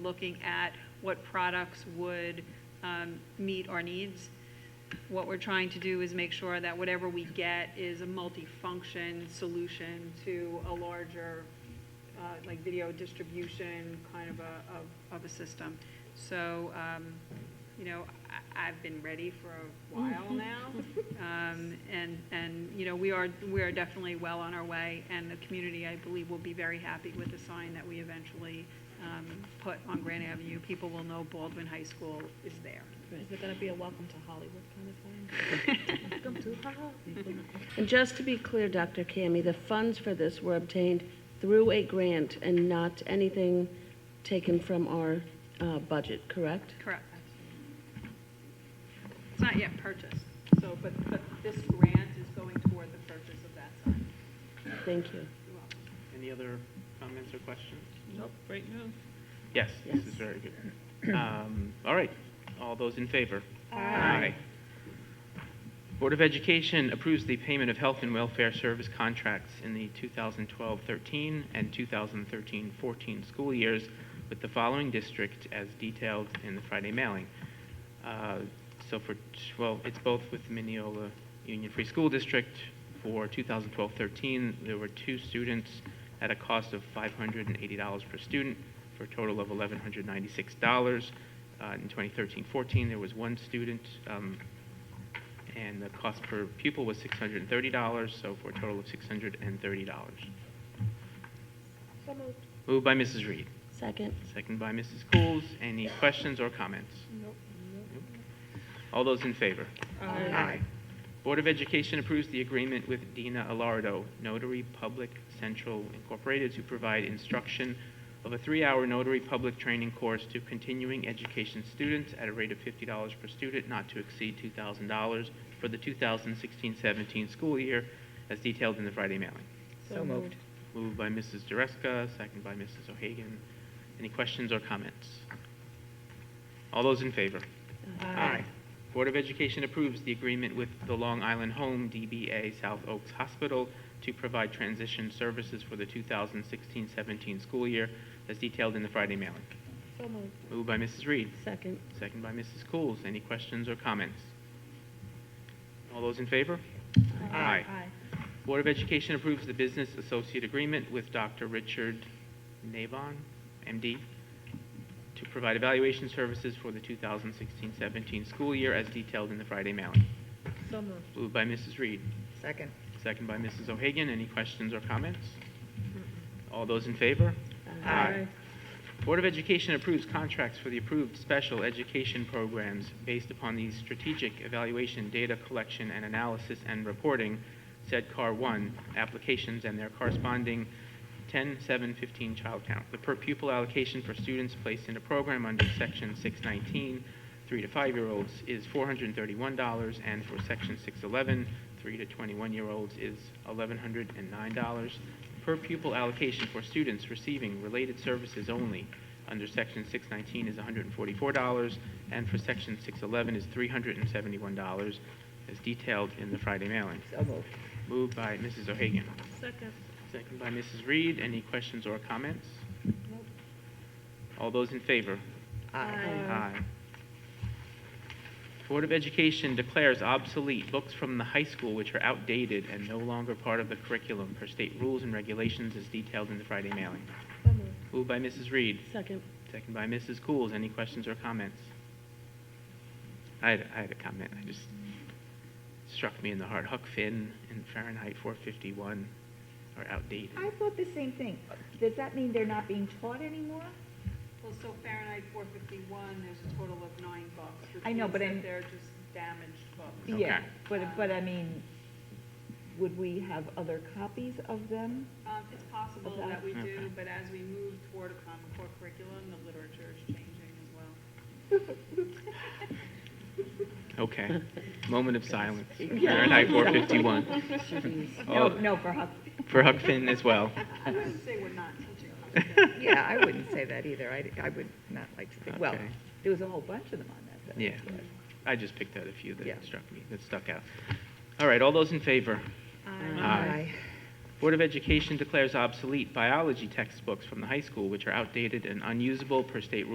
looking at what products would um, meet our needs. What we're trying to do is make sure that whatever we get is a multi-function solution to a larger, uh, like video distribution kind of a, of, of a system. So, um, you know, I, I've been ready for a while now. Um, and, and, you know, we are, we are definitely well on our way, and the community, I believe, will be very happy with the sign that we eventually, um, put on Grand Avenue. People will know Baldwin High School is there. Is it gonna be a welcome to Hollywood kind of thing? And just to be clear, Dr. Cammy, the funds for this were obtained through a grant and not anything taken from our uh, budget, correct? Correct. It's not yet purchased, so, but, but this grant is going toward the purchase of that sign. Thank you. You're welcome. Any other comments or questions? Nope, right now. Yes, this is Yes. very good. Um, All right, all those in favor? Aye. Board of Education approves the payment of health and welfare service contracts in the 2012-13 and 2013-14 school years with the following district as detailed in the Friday mailing. Uh, So for, t- well, it's both with Mineola Union Free School District. For 2012-13, there were two students at a cost of $580 per student for a total of $1,196. Uh, In 2013-14, there was one student um, and the cost per pupil was $630, so for a total of $630. Moved by Mrs. Reed, Second? second by Mrs. Coles. Any questions or comments? Nope. Nope. All those in favor? Aye. Board of Education approves the agreement with Dina Alardo, Notary Public Central Incorporated, to provide instruction of a three-hour notary public training course to continuing education students at a rate of $50 per student, not to exceed $2,000 for the 2016-17 school year, as detailed in the Friday mailing. So moved. Moved by Mrs. Dreska, second by Mrs. O'Hagan. Any questions or comments? All those in favor? Aye. Board of Education approves the agreement with the Long Island Home DBA South Oaks Hospital to provide transition services for the 2016-17 school year, as detailed in the Friday mailing. So moved. Moved by Mrs. Reed, Second? second by Mrs. Coles. Any questions or comments? All those in favor? Aye. Board of Education approves the business associate agreement with Dr. Richard Navon, MD, to provide evaluation services for the 2016-17 school year as detailed in the Friday mailing. So moved. Moved by Mrs. Reed, Second. second by Mrs. O'Hagan. Any questions or comments? All those in favor? Aye. Board of Education approves contracts for the approved special education programs based upon the strategic evaluation, data collection and analysis and reporting, said CAR 1, applications and their corresponding 10, 7, 15 child count. The per pupil allocation for students placed in a program under Section 619, 3 to 5-year-olds, is $431, and for Section 611, 3 to 21-year-olds, is $1,109. Per pupil allocation for students receiving related services only under Section 619 is $144, and for Section 611 is $371, as detailed in the Friday mailing. So moved. Moved by Mrs. O'Hagan. Second. Second by Mrs. Reed. Any questions or comments? All those in favor? Aye. Board of Education declares obsolete books from the high school which are outdated and no longer part of the curriculum per state rules and regulations as detailed in the Friday mailing. So moved. Moved by Mrs. Reed, Second? second by Mrs. Coles. Any questions or comments? I had, I had a comment. I just struck me in the heart. Huck Finn and Fahrenheit 451 are outdated. I thought the same thing. Does that mean they're not being taught anymore? Well, so Fahrenheit 451, there's a total of nine books. which I know, means but that I'm- They're just damaged books. Okay. Yeah, but, but I mean, would we have other copies of them? Um, It's possible Okay. that we do, Okay. but as we move toward a Common Core curriculum, the literature is changing as well. Okay. Moment of silence. Fahrenheit 451 No, Oh. no, for Huck. for Huck Finn as well. I wouldn't say we're not teaching. them. Yeah, I wouldn't say that either. I, I would not like to think, well, Okay. there was a whole bunch of them on that. though. Yeah. I just picked out a few that Yeah. struck me, that stuck out. All right, all those in favor? Aye. Board of Education declares obsolete biology textbooks from the high school which are outdated and unusable per state rules